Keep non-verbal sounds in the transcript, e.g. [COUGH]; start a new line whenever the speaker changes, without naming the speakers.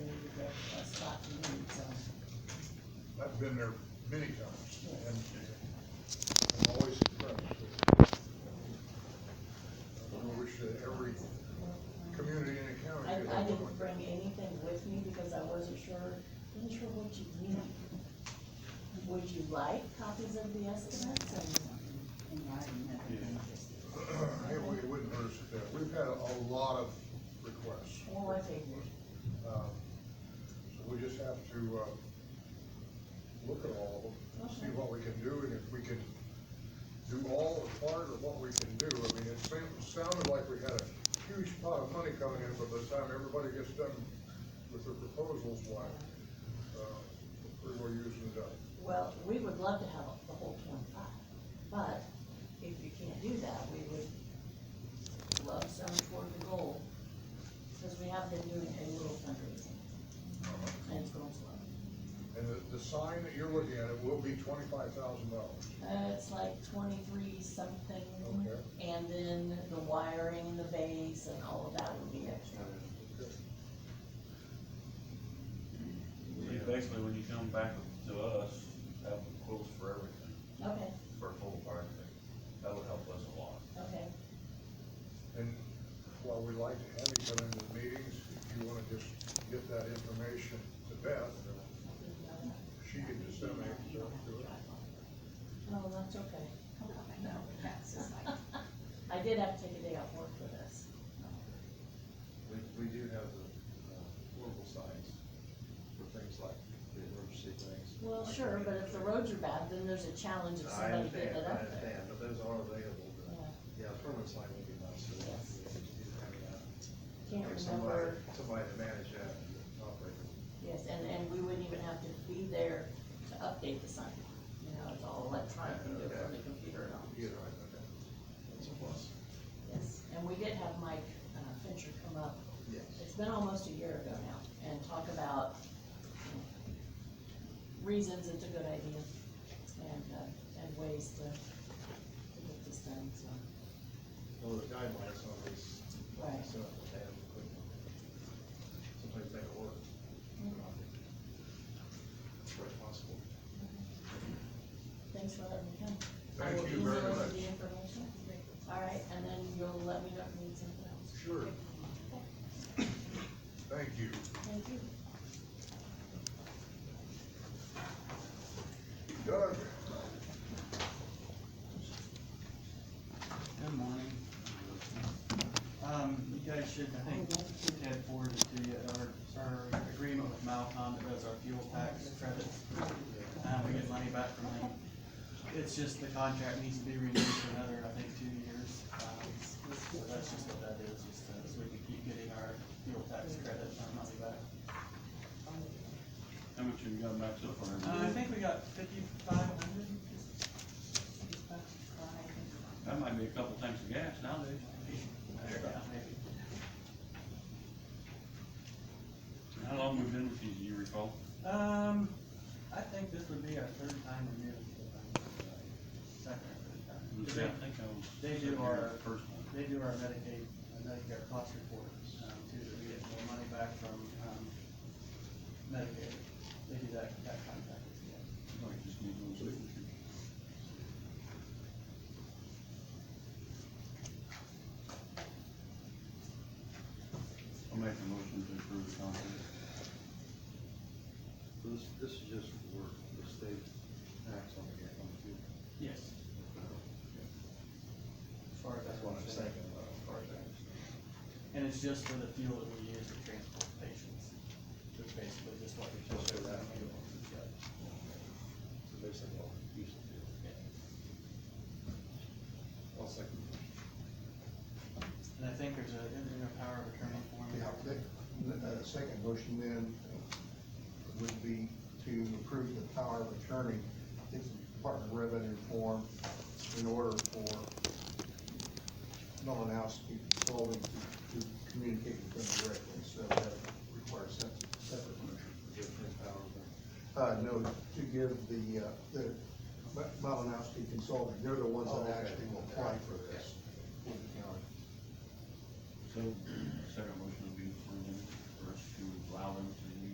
been there many times, and I'm always impressed. I wish that every community in the county
I,
could
I
have one [CLEARS THROAT]
didn't
like
bring
that.
anything with me because I wasn't sure, wasn't sure what you needed. Would you like copies of the estimates and?
It would- It wouldn't hurt us to do. We've had a lot of requests.
Well, I figured.
Um, So we just have to, uh, look at all of them, see
Okay.
what we can do, and if we can do all or part of what we can do. I mean, it seemed- sounded like we had a huge pot of money coming in, but by the time everybody gets done with their proposals, why, uh, we're pretty well using it up.
Well, we would love to have the whole twenty-five, but if you can't do that, we would love some toward the goal. Because we have been doing a little fundraising and it's going slow.
And the, the sign that you're looking at, it will be twenty-five thousand dollars.
Uh, it's like twenty-three something.
Okay.
And then the wiring and the base and all of that would be extra.
You Basically, when you come back to us, have quotes for everything,
Okay,
for a full project, that would help us a lot.
okay.
And while we like to have you come into the meetings, if you wanna just get that information to Beth, she can disseminate it to us.
No, Oh, that's okay.
I know, but that's just like,
I did have to take a day off work for this.
We, we do have the uh, portable signs for things like the emergency things.
Well, sure, but if the roads are bad, then there's a challenge of
I
somebody getting it
understand, I
up there.
understand, but those are available, but, yeah, a permanent sign would be nice to have.
Yes.
yeah, you do have that.
Can't remember,
Have somebody- Somebody to manage that and operate it.
yes, and, and we wouldn't even have to be there to update the sign. You know, it's all electronic, you do it from the computer and all.
Either way, okay. That's a plus.
Yes, and we did have Mike uh, Fincher come up
Yes.
it's been almost a year ago now, and talk about you know, reasons it's a good idea and, uh, and ways to, to get this done, so.
Well, the guidelines on these,
Right.
so they have equipment. Sometimes they don't work.
Mm-hmm.
It's very possible.
Thanks for letting me come.
Thank you very
I will email
much.
you the information. All right, and then you'll let me know if you need something else.
Sure. Thank you.
Thank you.
Doug,
Good morning. Um, you guys should, I think, Ted forwarded to you our, our agreement with Malcom that does our fuel tax credits. Um, we get money back from them. It's just the contract needs to be renewed for another, I think, two years. Um, So that's just what that is, just uh, so we can keep getting our fuel tax credit and our money back.
How much have you got back so far?
Uh, I think we got fifty-five hundred?
That might be a couple tanks of gas nowadays. How long we been with you, do you recall?
Um, I think this would be our third time renewed. Second or third time. 'Cause
I
they-
think I was.
They do our-
First one.
They do our Medicaid, uh, Medicare cost report, um, too, that we get the money back from, um, Medicaid. They do that, that contract, yeah.
Like, just need one signature. I'll make a motion to approve the contract.
This, this is just for the state tax on the, on the fuel.
Yes. As far as
That's what I'm
concerned.
saying uh, about projects.
And it's just for the fuel that we use to transport patients, which basically just what we
Just for
told you.
that fuel. So basically, all diesel fuel. I'll second.
And I think there's a, isn't there a power of attorney form?
Yeah, that, uh, second motion then would be to approve the power of attorney, I think the Department of Revenue form, in order for Melanowski Consulting to, to communicate with them directly, so that requires a separate motion.
Different power, but
Uh, no, to give the, uh, the Melanowski Consulting, they're the ones
Oh,
that
okay.
actually will apply for this with the county.
So, second motion would be for them, for us to allow them